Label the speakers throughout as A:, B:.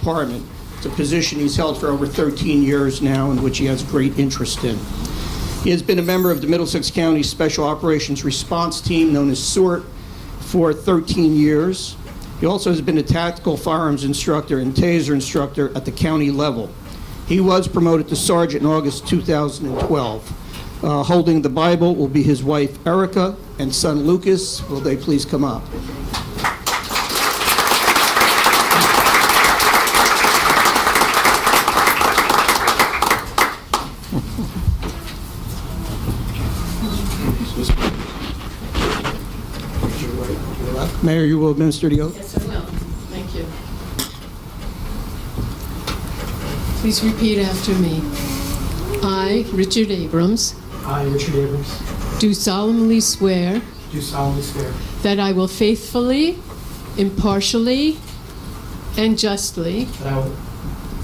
A: Department. It's a position he's held for over 13 years now, in which he has great interest in. He has been a member of the Middlesex County Special Operations Response Team, known as SORT, for 13 years. He also has been a tactical firearms instructor and taser instructor at the county level. He was promoted to sergeant in August 2012. Uh, Holding the Bible will be his wife Erica and son Lucas. Will they please come up? Mayor, you will administer the oath?
B: Yes, I will. Thank you. Please repeat after me. I, Richard Abrams,
C: I, Richard Abrams,
B: do solemnly swear
C: do solemnly swear
B: that I will faithfully, impartially, and justly,
C: that I will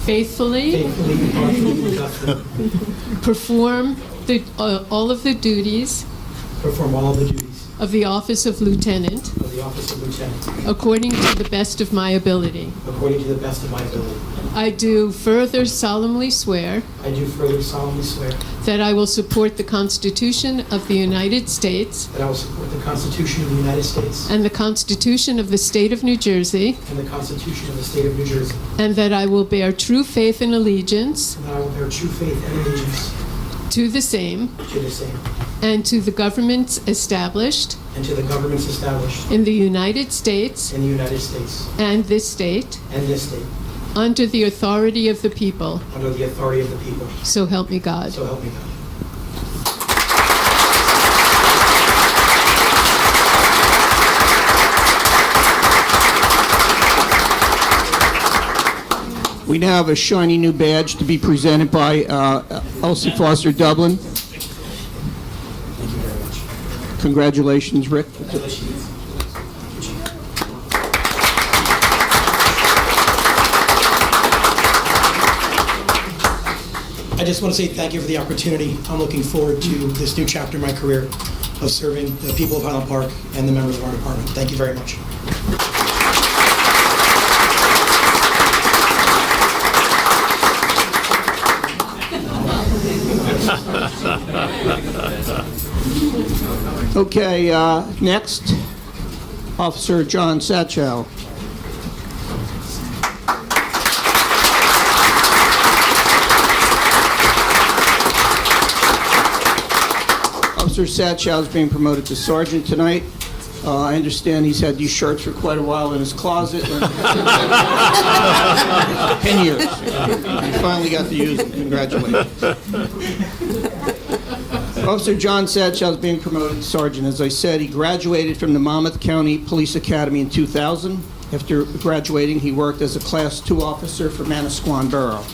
B: faithfully
C: faithfully, impartially, and justly
B: perform the, uh, all of the duties
C: perform all the duties
B: of the office of lieutenant
C: of the office of lieutenant
B: according to the best of my ability.
C: according to the best of my ability.
B: I do further solemnly swear
C: I do further solemnly swear
B: That I will support the Constitution of the United States
C: that I will support the Constitution of the United States
B: and the Constitution of the State of New Jersey,
C: and the Constitution of the State of New Jersey,
B: and that I will bear true faith and allegiance
C: and that I will bear true faith and allegiance
B: to the same
C: to the same
B: and to the governments established
C: and to the governments established
B: in the United States
C: in the United States
B: and this state
C: and this state
B: under the authority of the people.
C: under the authority of the people.
B: So help me God.
C: So help me God.
A: We now have a shiny new badge to be presented by uh, Elsie Foster Dublin. Congratulations, Rick.
C: I just want to say thank you for the opportunity. I'm looking forward to this new chapter in my career of serving the people of Highland Park and the members of our department. Thank you very much.
A: Okay, uh, next, Officer John Satchow. Officer Satchow is being promoted to sergeant tonight. Uh, I understand he's had these shirts for quite a while in his closet. 10 years. He finally got to use them. Congratulations. Officer John Satchell is being promoted to sergeant. As I said, he graduated from the Monmouth County Police Academy in 2000. After graduating, he worked as a Class II officer for Manasquan Borough.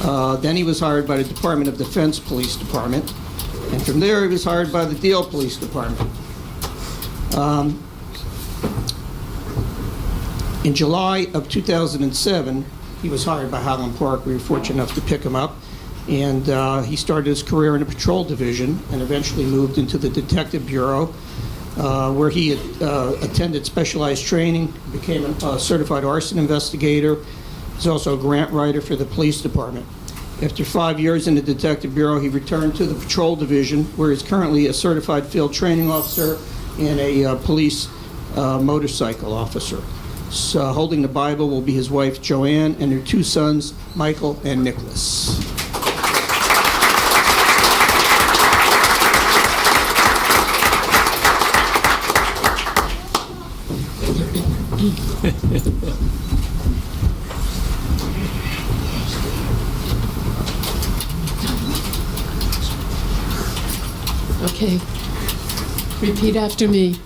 A: Uh, Then he was hired by the Department of Defense Police Department, and from there, he was hired by the Deal Police Department. In July of 2007, he was hired by Highland Park. We were fortunate enough to pick him up. And uh, he started his career in the patrol division and eventually moved into the detective bureau, uh, where he uh, attended specialized training, became a certified arson investigator. He's also a grant writer for the police department. After five years in the detective bureau, he returned to the patrol division, where he's currently a certified field training officer and a uh, police uh, motorcycle officer. So, holding the Bible will be his wife Joanne and their two sons, Michael and Nicholas.
B: Okay. Repeat after me.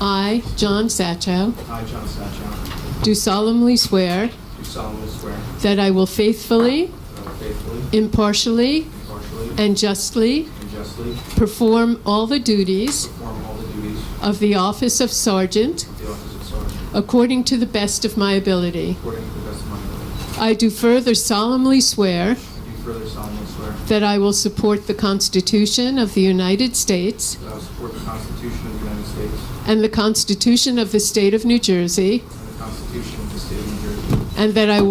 B: I, John Satchow,
D: I, John Satchow,
B: do solemnly swear
D: do solemnly swear
B: that I will faithfully,
D: that I will faithfully,
B: impartially,
D: impartially,
B: and justly
D: and justly
B: Perform all the duties
D: perform all the duties
B: of the office of sergeant
D: of the office of sergeant
B: according to the best of my ability.
D: according to the best of my ability.
B: I do further solemnly swear
D: I do further solemnly swear
B: that I will support the Constitution of the United States
D: that I will support the Constitution of the United States
B: and the Constitution of the State of New Jersey,
D: and the Constitution of the State of New Jersey,
B: and that I will